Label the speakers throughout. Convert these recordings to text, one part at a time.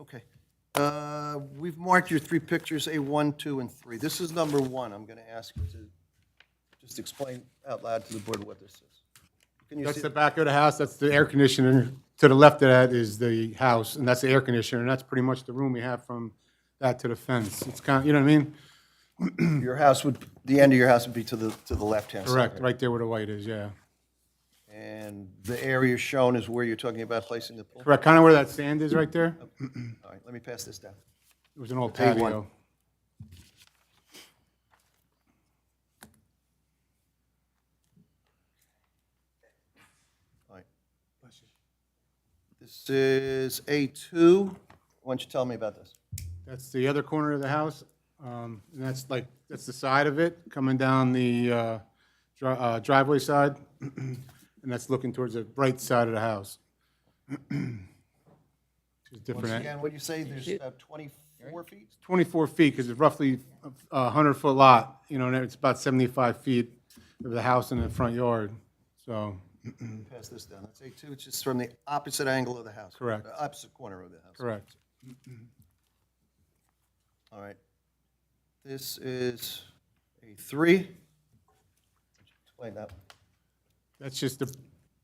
Speaker 1: Okay. Uh, We've marked your three pictures, A1, 2, and 3. This is number one. I'm going to ask you to just explain out loud to the board what this is. Can you see?
Speaker 2: That's the back of the house, that's the air conditioner. To the left of that is the house, and that's the air conditioner, and that's pretty much the room we have from that to the fence. It's kind, of you know what I mean?
Speaker 1: Your house would, the end of your house would be to the, to the left-hand side.
Speaker 2: Correct, right there where the white is, yeah.
Speaker 1: And the area shown is where you're talking about placing the pool?
Speaker 2: Correct, kind of where that sand is right there.
Speaker 1: All right, let me pass this down.
Speaker 2: It was an old
Speaker 1: A1.
Speaker 2: patio.
Speaker 1: All right. This is A2. Why don't you tell me about this?
Speaker 2: That's the other corner of the house, um, and that's like, that's the side of it, coming down the uh, dri- uh, driveway side, and that's looking towards the right side of the house. It's different.
Speaker 1: Once again, what'd you say, there's about 24 feet?
Speaker 2: 24 feet, because it's roughly a 100-foot lot, you know, and it's about 75 feet of the house in the front yard, so,
Speaker 1: Pass this down. That's A2, it's just from the opposite angle of the house.
Speaker 2: Correct.
Speaker 1: the Opposite corner of the house.
Speaker 2: correct.
Speaker 1: All right. This is A3. Explain that.
Speaker 2: That's just the,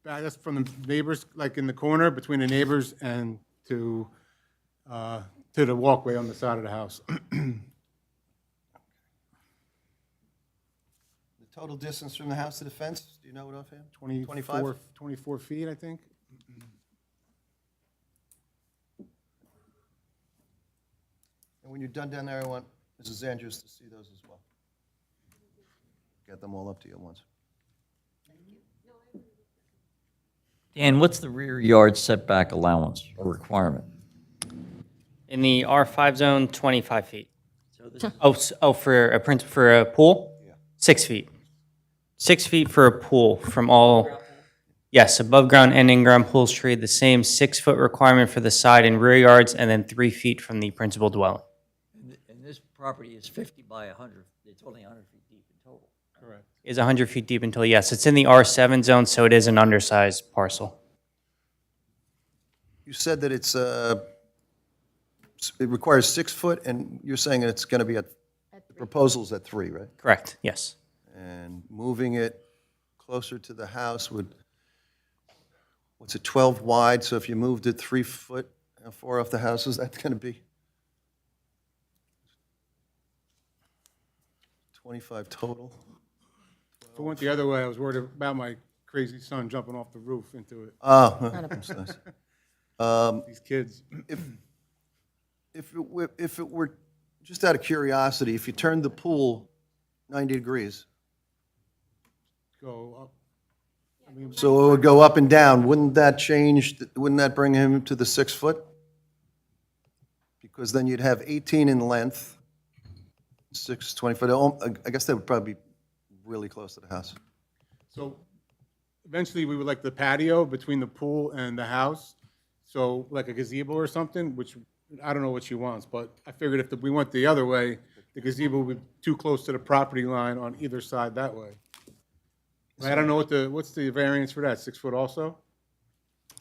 Speaker 2: back- that's from the neighbors, like in the corner, between the neighbors and to, uh, to the walkway on the side of the house.
Speaker 1: The total distance from the house to the fence, do you know it offhand? 25?
Speaker 2: 24, 24 feet, I think.
Speaker 1: And when you're done down there, I want Mrs. Andrews to see those as well. Get them all up to you at once.
Speaker 3: Dan, what's the rear yard setback allowance or requirement?
Speaker 4: In the R5 zone, 25 feet. Oh, s- oh, for a print, for a pool? Six feet. Six feet for a pool from all, yes, above ground and in-ground pools trade the same six-foot requirement for the side and rear yards, and then three feet from the principal dwelling.
Speaker 3: And this property is 50 by 100, it's only 100 feet deep in total.
Speaker 4: Is 100 feet deep until, yes, it's in the R7 zone, so it is an undersized parcel.
Speaker 1: You said that it's, uh, s- it requires six foot, and you're saying it's going to be at, the proposal's at three, right?
Speaker 4: Correct, yes.
Speaker 1: And moving it closer to the house would, what's it, 12 wide, so if you moved it three foot, how far off the house is that going to be? 25 total?
Speaker 2: If it went the other way, I was worried about my crazy son jumping off the roof into it,
Speaker 1: Oh, I'm sorry.
Speaker 2: these kids.
Speaker 1: If it were, if it were, just out of curiosity, if you turned the pool 90 degrees,
Speaker 2: go up.
Speaker 1: so it would go up and down, wouldn't that change, th- wouldn't that bring him to the six foot? Because then you'd have 18 in length, six, 20 foot, Oh, I I guess that would probably be really close to the house.
Speaker 2: So eventually, we would like the patio between the pool and the house, so like a gazebo or something, which, I don't know what she wants, but I figured if we went the other way, the gazebo would be too close to the property line on either side that way. I don't know what the, what's the variance for that, six foot also?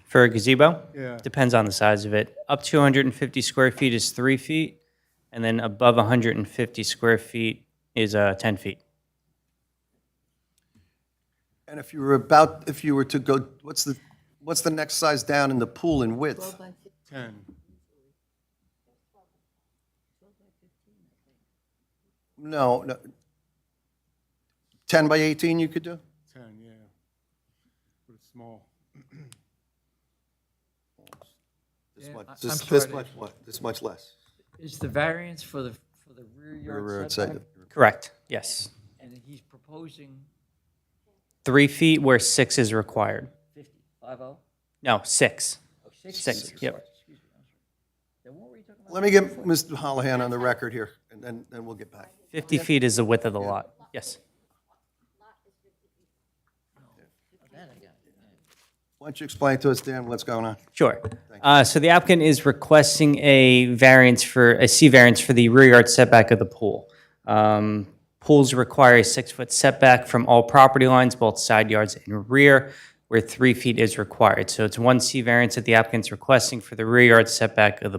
Speaker 4: For a gazebo?
Speaker 2: Yeah.
Speaker 4: Depends on the size of it. Up to 150 square feet is three feet, and then above 150 square feet is uh, 10 feet.
Speaker 1: And if you were about, if you were to go, what's the, what's the next size down in the pool in width?
Speaker 2: Ten.
Speaker 1: No, no. 10 by 18 you could do?
Speaker 2: Ten, yeah. But it's small.
Speaker 1: This
Speaker 3: Yeah, I-
Speaker 1: much,
Speaker 3: I'm
Speaker 1: this,
Speaker 3: sorry
Speaker 1: this
Speaker 3: to
Speaker 1: much, what- this much less.
Speaker 3: Is the variance for the, for the rear
Speaker 1: Rear
Speaker 3: yard
Speaker 1: yard
Speaker 3: setback?
Speaker 1: side.
Speaker 4: Correct, yes.
Speaker 3: And he's proposing
Speaker 4: Three feet where six is required.
Speaker 3: 50, 50? Oh,
Speaker 4: No, six.
Speaker 3: six?
Speaker 4: Six,
Speaker 3: Sorry,
Speaker 4: yep.
Speaker 3: Excuse me, I'm sorry. Then what were you talking about?
Speaker 1: Let me get Mr. Hollihan on the record here, and then, then we'll get back.
Speaker 4: 50 feet is the width of the lot, yes.
Speaker 3: That I got it.
Speaker 1: Why don't you explain to us, Dan, what's going on?
Speaker 4: Sure. Uh, So the applicant is requesting a variance for, a C variance for the rear yard setback of the pool. Um, Pools require a six-foot setback from all property lines, both side yards and rear, where three feet is required. So it's one C variance that the applicant's requesting for the rear yard setback of the